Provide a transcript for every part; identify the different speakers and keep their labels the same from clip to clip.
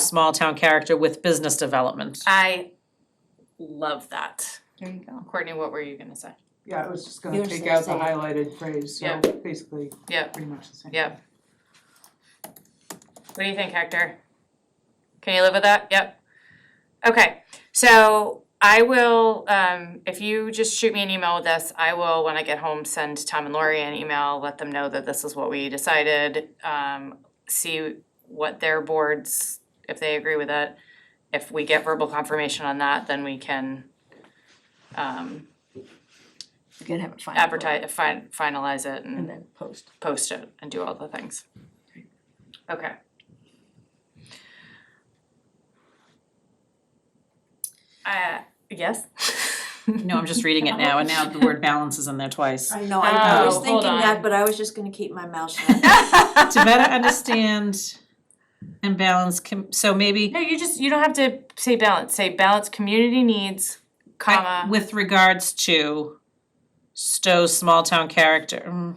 Speaker 1: small town character with business development.
Speaker 2: I love that.
Speaker 3: There you go.
Speaker 2: Courtney, what were you gonna say?
Speaker 4: Yeah, I was just
Speaker 3: You
Speaker 4: gonna
Speaker 3: were
Speaker 4: take
Speaker 3: gonna
Speaker 4: out the
Speaker 3: say-
Speaker 4: highlighted phrase, so
Speaker 2: Yeah.
Speaker 4: basically,
Speaker 2: Yeah.
Speaker 4: pretty much the same.
Speaker 2: Yeah. What do you think, Hector? Can you live with that? Yep. Okay, so I will, um, if you just shoot me an email with this, I will, when I get home, send Tom and Lori an email, let them know that this is what we decided. Um, see what their boards, if they agree with it. If we get verbal confirmation on that, then we can, um,
Speaker 3: You can have it final.
Speaker 2: advertise, fin- finalize it
Speaker 3: And then post.
Speaker 2: post it and do all the things. Okay. Uh, yes?
Speaker 1: No, I'm just reading it now, and now the word balance is in there twice.
Speaker 5: I know, I I
Speaker 2: Oh,
Speaker 5: was
Speaker 2: hold
Speaker 5: thinking
Speaker 2: on.
Speaker 5: that, but I was just gonna keep my mouth shut.
Speaker 1: To better understand and balance, com- so maybe
Speaker 2: No, you just, you don't have to say balance, say balance community needs,
Speaker 1: I-
Speaker 2: comma,
Speaker 1: with regards to Stowe's small town character. mm.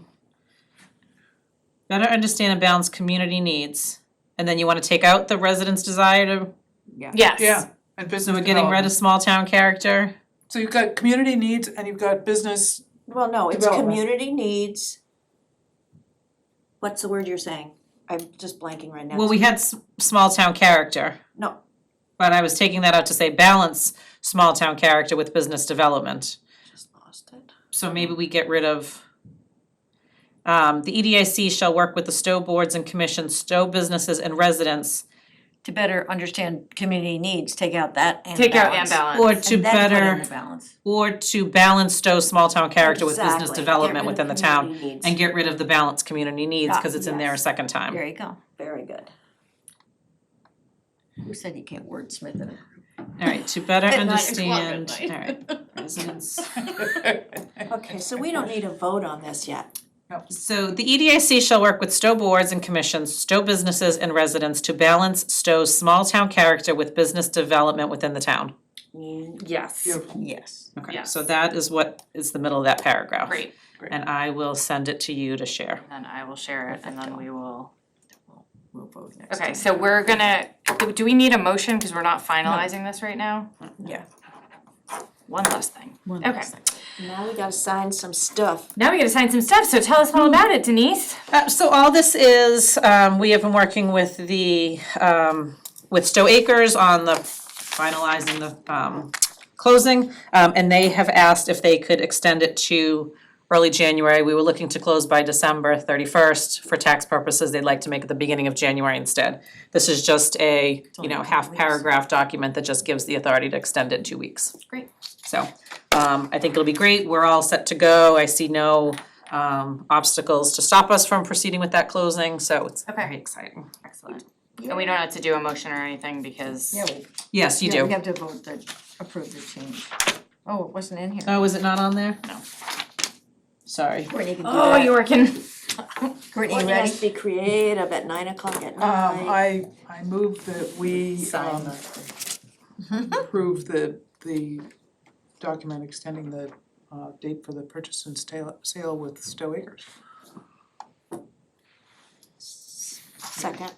Speaker 1: Better understand and balance community needs, and then you wanna take out the residents' desire to,
Speaker 2: yes.
Speaker 4: Yeah, and business
Speaker 1: so we're getting rid of
Speaker 4: development.
Speaker 1: small town character?
Speaker 4: So you've got community needs and you've got business,
Speaker 5: Well, no, it's
Speaker 4: Development.
Speaker 5: community needs. What's the word you're saying? I'm just blanking right now.
Speaker 1: Well, we had s- small town character.
Speaker 5: No.
Speaker 1: But I was taking that out to say balance small town character with business development.
Speaker 5: Just lost it.
Speaker 1: So maybe we get rid of um, the EDIC shall work with the Stowe boards and commissions, Stowe businesses and residents,
Speaker 3: To better understand community needs, take out that and
Speaker 2: Take out and
Speaker 3: balance.
Speaker 1: or
Speaker 2: balance.
Speaker 1: to
Speaker 3: And then put in
Speaker 1: better,
Speaker 3: the balance.
Speaker 1: or to balance Stowe's small town character with business
Speaker 5: Exactly. Get
Speaker 1: development
Speaker 5: rid of
Speaker 1: within the town.
Speaker 5: community needs.
Speaker 1: And get rid of the balance community needs, cause
Speaker 3: Ah,
Speaker 1: it's in there a
Speaker 5: yes.
Speaker 1: second time.
Speaker 3: There you go.
Speaker 5: Very good.
Speaker 3: Who said you can't wordsmith it?
Speaker 1: Alright, to better
Speaker 3: At nine o'clock at
Speaker 1: understand,
Speaker 3: night.
Speaker 1: alright, residents.
Speaker 4: Um,
Speaker 5: Okay, so we don't need a vote on this yet.
Speaker 1: So the E EDIC shall work with Stowe boards and commissions, Stowe businesses and residents to balance Stowe's small town character with business development within the town.
Speaker 2: Yes.
Speaker 4: beautiful,
Speaker 3: Yes.
Speaker 1: Okay,
Speaker 2: Yes.
Speaker 1: so that is what is the middle of that paragraph.
Speaker 2: Great,
Speaker 1: And I will send it to you to share.
Speaker 2: then I will share it and then we will.
Speaker 3: We'll vote next
Speaker 2: Okay,
Speaker 3: time.
Speaker 2: so we're gonna, do we need a motion, cause we're not finalizing this right now?
Speaker 3: Yeah.
Speaker 2: One last thing.
Speaker 3: One
Speaker 2: Okay.
Speaker 3: last thing.
Speaker 5: Now we gotta sign some stuff.
Speaker 2: Now we gotta sign some stuff, so tell us all about it, Denise.
Speaker 1: Uh, so all this is, um, we have been working with the, um, with Stowe Acres on the finalizing the, um, closing. Um, and they have asked if they could extend it to early January. We were looking to close by December thirty-first. For tax purposes, they'd like to make it the beginning of January instead. This is just a, you know, half-paragraph document that just gives the authority to extend it two weeks.
Speaker 2: Great.
Speaker 1: So, um, I think it'll be great. We're all set to go. I see no, um, obstacles to stop us from proceeding with that closing, so it's
Speaker 2: Okay.
Speaker 1: very exciting.
Speaker 2: Excellent. And we don't have to do a motion or anything because,
Speaker 3: Yeah, we,
Speaker 1: Yes, you
Speaker 3: yeah, we
Speaker 1: do.
Speaker 3: have to vote to approve the change. Oh, it wasn't in here.
Speaker 1: Oh, is it not on there?
Speaker 2: No.
Speaker 1: Sorry.
Speaker 3: Courtney can do
Speaker 2: oh,
Speaker 3: that.
Speaker 2: you were can,
Speaker 3: Courtney, you
Speaker 5: Courtney
Speaker 3: ready?
Speaker 5: has to be creative at nine o'clock at
Speaker 4: Um,
Speaker 5: night.
Speaker 4: I, I move that we, um, approve the, the document extending the, uh, date for the purchase and sale, sale with Stowe Acres.
Speaker 5: Second,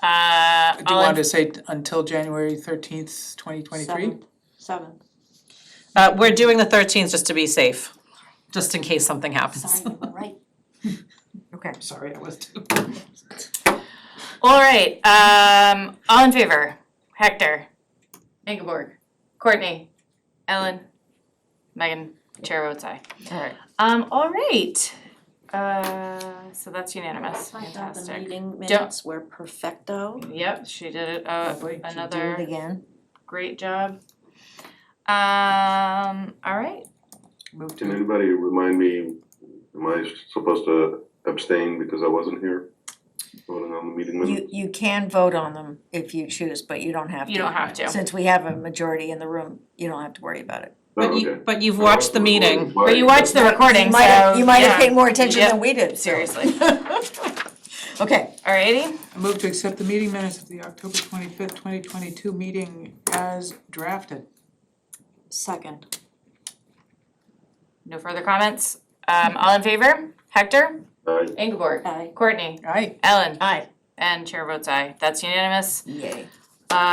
Speaker 2: uh,
Speaker 4: Do you
Speaker 2: all
Speaker 4: want to
Speaker 2: in,
Speaker 4: say until January thirteenth, twenty twenty-three?
Speaker 5: seventh, seventh.
Speaker 1: Uh, we're doing the thirteenth just to be safe, just in case something happens.
Speaker 5: Sorry, you were right.
Speaker 3: Okay.
Speaker 4: Sorry, I was too.
Speaker 2: all right, um, all in favor? Hector, Ingeborg, Courtney, Ellen, Megan, chair votes aye.
Speaker 3: All right.
Speaker 2: Um, all right, uh, so that's unanimous,
Speaker 5: I thought the
Speaker 2: fantastic.
Speaker 5: meeting minutes were perfecto.
Speaker 2: Yep, she did it, uh,
Speaker 4: Lovely.
Speaker 3: Should we
Speaker 2: another.
Speaker 3: Do it again.
Speaker 2: Great job. Um, all right.
Speaker 4: Move
Speaker 6: Can
Speaker 4: to,
Speaker 6: anybody remind me, am I supposed to abstain because I wasn't here voting on the meeting minutes?
Speaker 3: You, you can vote on them if you choose, but you don't have to.
Speaker 2: You don't have to.
Speaker 3: Since we have a majority in the room, you don't have to worry about it.
Speaker 6: Oh,
Speaker 1: But you,
Speaker 6: okay.
Speaker 1: but you've watched the meeting.
Speaker 2: But you watched the recording,
Speaker 3: You might have,
Speaker 2: so,
Speaker 3: you might have
Speaker 2: yeah.
Speaker 3: paid more attention
Speaker 2: Yep.
Speaker 3: than we did,
Speaker 2: Seriously.
Speaker 3: Okay,
Speaker 2: Alrighty,
Speaker 4: move to accept the meeting minutes of the October twenty-fifth, twenty twenty-two meeting as drafted.
Speaker 5: Second,
Speaker 2: no further comments. Um, all in favor? Hector?
Speaker 6: Aye.
Speaker 2: Ingeborg?
Speaker 5: Aye.
Speaker 2: Courtney?
Speaker 4: Aye.
Speaker 2: Ellen?
Speaker 3: aye,
Speaker 2: And chair votes aye. That's unanimous.
Speaker 3: yay.